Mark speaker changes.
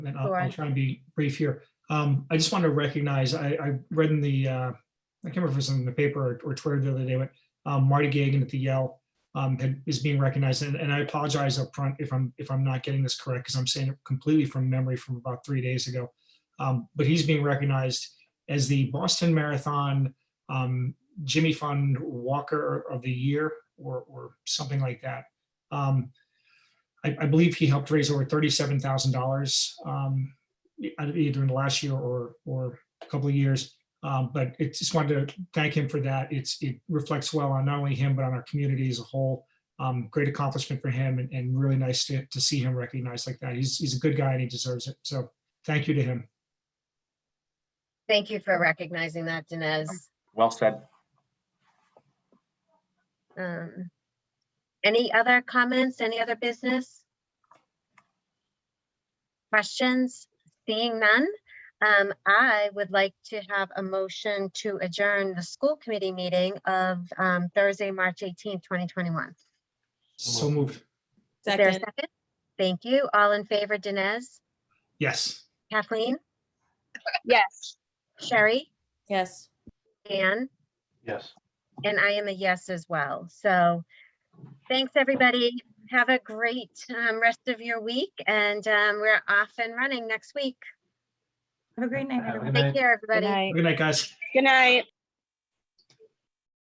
Speaker 1: And then I'll, I'll
Speaker 2: Sure.
Speaker 1: try and be brief here. Um, I just want to recognize, I, I read in the, uh, I can't remember if it was in the paper or- or Twitter the other day, but um, Marty Gagan at the Yale um, had- is being recognized. And, and I apologize upfront if I'm, if I'm not getting this correct, because I'm saying it completely from memory from about three days ago. Um, but he's being recognized as the Boston Marathon um, Jimmy Fund Walker of the Year or, or something like that. Um, I, I believe he helped raise over thirty-seven thousand dollars, um, e- either in the last year or, or a couple of years. Um, but it just wanted to thank him for that. It's, it reflects well on not only him, but on our community as a whole. Um, great accomplishment for him and, and really nice to, to see him recognized like that. He's, he's a good guy and he deserves it. So thank you to him.
Speaker 2: Thank you for recognizing that, Dinesh.
Speaker 3: Well said.
Speaker 2: Um, Any other comments, any other business? Questions? Seeing none, um, I would like to have a motion to adjourn the school committee meeting of um, Thursday, March 18th, 2021. Is
Speaker 1: So moved.
Speaker 2: there a
Speaker 4: Second,
Speaker 2: second? Thank you. All in favor, Dinesh?
Speaker 1: Yes.
Speaker 2: Kathleen?
Speaker 5: Yes.
Speaker 2: Sherry?
Speaker 4: yes.
Speaker 2: Anne?
Speaker 3: Yes.
Speaker 2: And I am a yes as well. So thanks, everybody. Have a great um, rest of your week and um, we're off and running next week.
Speaker 6: Have a great night, everyone.
Speaker 2: Take care,
Speaker 5: Good
Speaker 2: everybody.
Speaker 5: night.
Speaker 1: Good night, guys.
Speaker 5: Good night.